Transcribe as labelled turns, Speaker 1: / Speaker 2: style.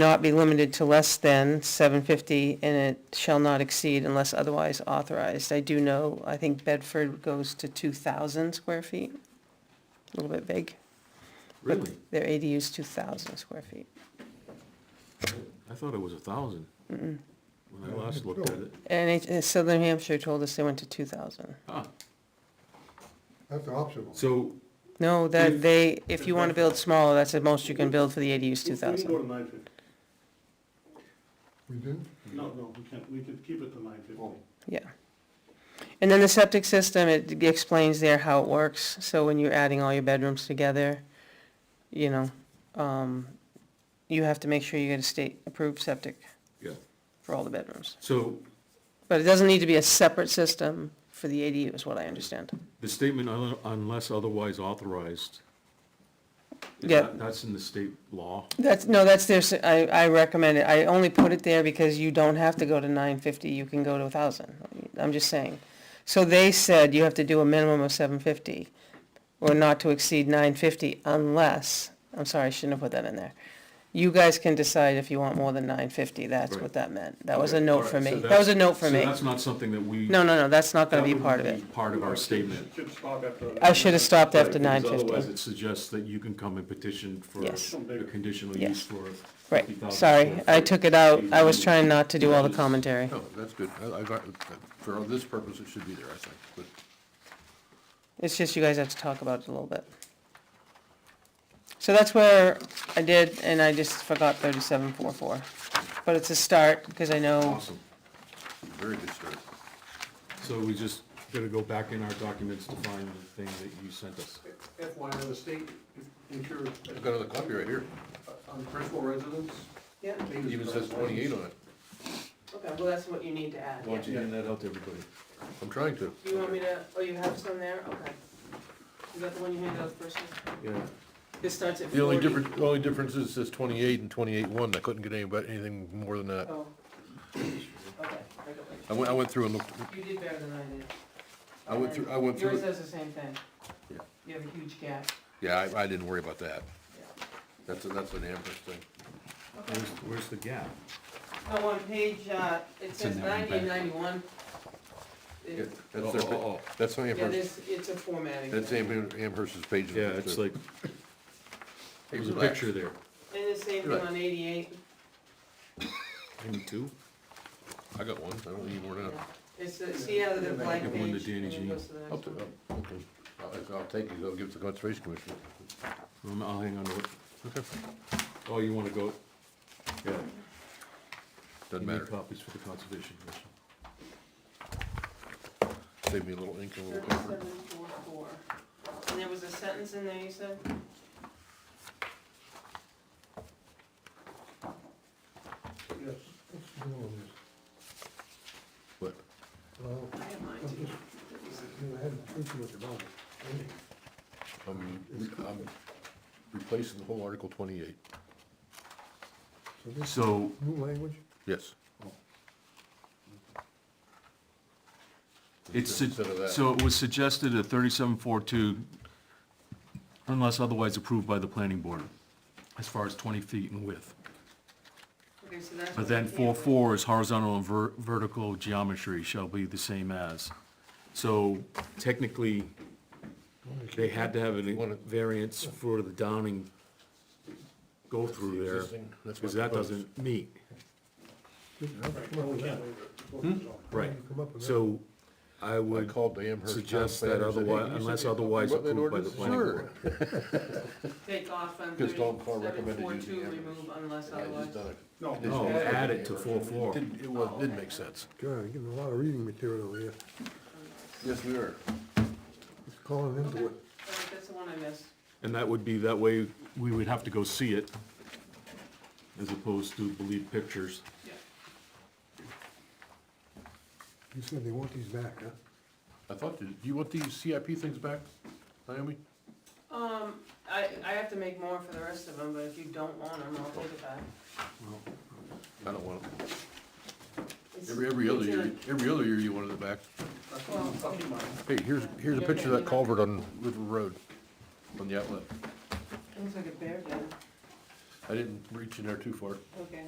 Speaker 1: not be limited to less than seven fifty, and it shall not exceed unless otherwise authorized. I do know, I think Bedford goes to two thousand square feet, a little bit big. but
Speaker 2: Really?
Speaker 1: Their ADU is two thousand square feet.
Speaker 2: I thought it was a thousand. When I last looked at it.
Speaker 1: And it- uh, Southern Hampshire told us they went to two thousand.
Speaker 2: Ah,
Speaker 3: That's optional.
Speaker 2: so,
Speaker 1: No, that
Speaker 2: If-
Speaker 1: they, if you want to build smaller, that's the most you can build for the ADU is two
Speaker 4: We can go
Speaker 1: thousand.
Speaker 4: to nine fifty.
Speaker 3: We didn't?
Speaker 4: No, no, we can't. We could keep it to nine fifty.
Speaker 3: Oh.
Speaker 1: Yeah. And then the septic system, it explains there how it works. So when you're adding all your bedrooms together, you know, um, you have to make sure you get a state-approved septic
Speaker 2: yeah,
Speaker 1: for all the bedrooms.
Speaker 2: so
Speaker 1: But it doesn't need to be a separate system for the ADU is what I understand.
Speaker 2: the statement un- unless otherwise authorized. is
Speaker 1: Yeah.
Speaker 2: that- That's in the state law.
Speaker 1: That's, no, that's their, s- I, I recommend it. I only put it there because you don't have to go to nine fifty, you can go to a thousand. I'm just saying. So they said you have to do a minimum of seven fifty, or not to exceed nine fifty unless, I'm sorry, I shouldn't have put that in there. You guys can decide if you want more than nine fifty, that's
Speaker 2: Right.
Speaker 1: what that meant. That was a
Speaker 2: Okay,
Speaker 1: note
Speaker 2: all
Speaker 1: for
Speaker 2: right, so
Speaker 1: me. That
Speaker 2: that's-
Speaker 1: was a note for
Speaker 2: so
Speaker 1: me.
Speaker 2: that's not something that we.
Speaker 1: No, no, no, that's not gonna
Speaker 2: that
Speaker 1: be
Speaker 2: wouldn't
Speaker 1: part of it.
Speaker 2: Part of our statement.
Speaker 4: Should stop after.
Speaker 1: I should have stopped after
Speaker 2: Right,
Speaker 1: nine
Speaker 2: because Otherwise,
Speaker 1: fifty.
Speaker 2: it suggests that you can come and petition for
Speaker 1: Yes.
Speaker 2: a conditional
Speaker 1: Yeah.
Speaker 2: use for.
Speaker 1: Right,
Speaker 2: 50,000
Speaker 1: sorry,
Speaker 2: square
Speaker 1: I
Speaker 2: feet.
Speaker 1: took it out. I was
Speaker 2: ADU.
Speaker 1: trying not to do all the
Speaker 2: Yeah.
Speaker 1: commentary.
Speaker 5: No, Oh, that's good. I, I, got- for this purpose, it should be there, I think, but
Speaker 1: It's just you guys have to talk about it a little bit. So that's where I did, and I just forgot thirty-seven four four. But it's a start, because I know,
Speaker 2: Awesome.
Speaker 5: very good start.
Speaker 2: So we just gotta go back in our documents to find the thing that you sent us.
Speaker 4: FYI, the state, if you're
Speaker 5: I've got another copy right here.
Speaker 4: on principal residence.
Speaker 1: Yeah.
Speaker 5: It even says twenty-eight on it.
Speaker 1: okay, well, that's what you need to add,
Speaker 2: Why don't you hand that out to everybody?
Speaker 5: I'm trying to.
Speaker 1: Do you want me to, oh, you have some there, okay. Is that the one you handed out first?
Speaker 2: Yeah.
Speaker 1: This starts at
Speaker 5: The only difference, the only difference is it says twenty-eight and twenty-eight one. I couldn't get any, but anything more than that.
Speaker 1: Oh. Okay,
Speaker 5: I went, I went through and looked,
Speaker 1: You did better than I did.
Speaker 5: I went through, I went through, it.
Speaker 1: does the same thing.
Speaker 5: Yeah.
Speaker 1: You have a huge gap.
Speaker 5: yeah, I, I didn't worry about that. That's, a- that's an Amherst thing.
Speaker 2: Where's, where's the gap?
Speaker 1: Oh, on page, uh, it
Speaker 2: in
Speaker 1: says
Speaker 2: there,
Speaker 1: ninety and
Speaker 2: right?
Speaker 1: ninety-one. It-
Speaker 5: Yeah, That's
Speaker 2: Oh, oh,
Speaker 5: their,
Speaker 2: oh.
Speaker 5: that's not
Speaker 1: Yeah,
Speaker 5: Amherst,
Speaker 1: this, it's a formatting.
Speaker 5: that's
Speaker 1: thing.
Speaker 5: Am- Amherst's page.
Speaker 2: Yeah, it's like,
Speaker 5: Hey,
Speaker 2: there's a
Speaker 5: relax.
Speaker 2: picture there.
Speaker 1: And the same thing
Speaker 5: Right.
Speaker 1: on eighty-eight.
Speaker 2: Maybe two?
Speaker 5: I got one. I don't need more than that.
Speaker 1: It's, the- see how the blank
Speaker 2: Give
Speaker 1: page.
Speaker 2: one to Danny
Speaker 1: and then
Speaker 2: Jean.
Speaker 1: goes to the next
Speaker 5: I'll, t-
Speaker 1: one.
Speaker 5: I'll- okay. I'll, I'll take these. I'll give it to the Conservation Commission.
Speaker 2: Um, I'll hang on to it.
Speaker 5: Okay.
Speaker 2: Oh, you wanna go? Yeah.
Speaker 5: Doesn't
Speaker 2: You need
Speaker 5: matter.
Speaker 2: Copies for the conservation commission.
Speaker 5: Save me a little ink and a little paper.
Speaker 1: Thirty-seven, four, four. And there was a sentence in there, you said?
Speaker 4: Yes.
Speaker 5: What?
Speaker 3: Well,
Speaker 1: I have mine
Speaker 3: I'm
Speaker 1: too.
Speaker 3: just- you know, I haven't thinking much about it.
Speaker 5: I'm, um, I'm replacing the whole Article twenty-eight.
Speaker 3: So this
Speaker 2: So,
Speaker 3: new language,
Speaker 5: Yes.
Speaker 2: it's, su-
Speaker 5: Instead of that.
Speaker 2: so it was suggested at thirty-seven four two, unless otherwise approved by the planning board, as far as twenty feet in width.
Speaker 1: Okay, so that's.
Speaker 2: But
Speaker 1: what
Speaker 2: then
Speaker 1: we
Speaker 2: four
Speaker 1: can't-
Speaker 2: four is horizontal and ver- vertical geometry shall be the same as. So technically, they had to have a variance for the Downing go through there,
Speaker 5: Existing, that's my
Speaker 2: because that
Speaker 5: proposed.
Speaker 2: doesn't meet,
Speaker 3: just come
Speaker 4: Right, Oh,
Speaker 3: up
Speaker 4: well, we
Speaker 3: with that.
Speaker 4: can't waive it. Well, it's all-
Speaker 2: Hmm? right.
Speaker 3: Come up with that.
Speaker 2: So I
Speaker 5: I
Speaker 2: would,
Speaker 5: called the Amherst. Town
Speaker 2: suggest that
Speaker 5: Planner and said,
Speaker 2: otherwi-
Speaker 5: hey, you said
Speaker 2: unless
Speaker 5: you talked
Speaker 2: otherwise
Speaker 5: about that
Speaker 2: approved by the
Speaker 5: ordinance?
Speaker 2: planning board.
Speaker 5: Sure.
Speaker 1: Take off on
Speaker 5: Because Don
Speaker 1: thirty-seven,
Speaker 5: Carr recommended
Speaker 1: four,
Speaker 5: using
Speaker 1: two,
Speaker 5: the
Speaker 1: remove unless
Speaker 5: I
Speaker 1: otherwise.
Speaker 5: just done it.
Speaker 4: No.
Speaker 2: no, add it to four
Speaker 5: It
Speaker 2: four.
Speaker 5: didn't, it was, didn't make sense.
Speaker 3: God, you're getting a lot of reading material here,
Speaker 5: Yes, we are.
Speaker 3: just calling into it.
Speaker 1: All right, That's the one I missed.
Speaker 2: And that would be, that way, we would have to go see it, as opposed to believe pictures.
Speaker 1: Yeah.
Speaker 3: You said they want these back, huh?
Speaker 5: I thought, you- do you want these CIP things back, Naomi?
Speaker 1: Um, I, I have to make more for the rest of them, but if you don't want them, I'll take it back.
Speaker 5: I don't want them.
Speaker 1: It's-
Speaker 5: Every, every other
Speaker 1: it's in
Speaker 5: year, every other year you wanted it back.
Speaker 1: Well,
Speaker 4: Fucking mine.
Speaker 5: Hey, here's, here's a picture of that culvert on River Road, on the outlet.
Speaker 1: a- Looks like a bear den.
Speaker 5: I didn't reach in there too far.
Speaker 1: Okay.